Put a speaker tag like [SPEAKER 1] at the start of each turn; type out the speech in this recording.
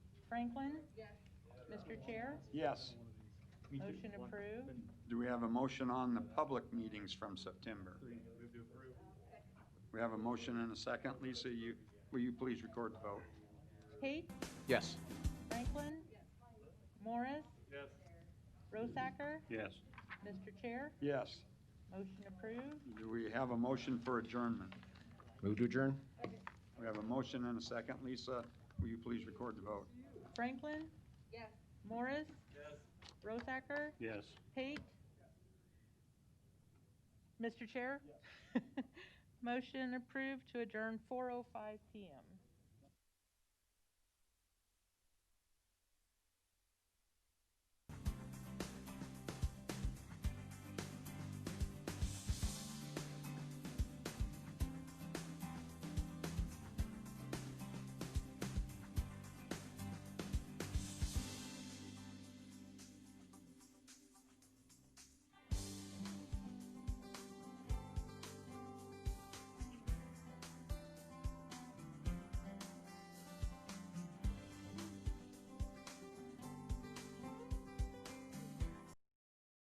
[SPEAKER 1] Franklin? Mr. Chair,
[SPEAKER 2] Yes.
[SPEAKER 1] motion approved.
[SPEAKER 2] Do we have a motion on the public meetings from September? We have a motion and a second. Lisa, you, will you please record the vote?
[SPEAKER 1] Pate,
[SPEAKER 3] Yes.
[SPEAKER 1] Franklin? Morris? Rosacker?
[SPEAKER 2] Yes.
[SPEAKER 1] Mr. Chair,
[SPEAKER 2] Yes.
[SPEAKER 1] motion approved.
[SPEAKER 2] Do we have a motion for adjournment?
[SPEAKER 3] Move to adjourn?
[SPEAKER 2] We have a motion and a second. Lisa, will you please record the vote?
[SPEAKER 1] Franklin? Morris? Rosacker?
[SPEAKER 2] Yes.
[SPEAKER 1] Pate? oh Mr. Chair? Motion approved to adjourn 4:05 PM.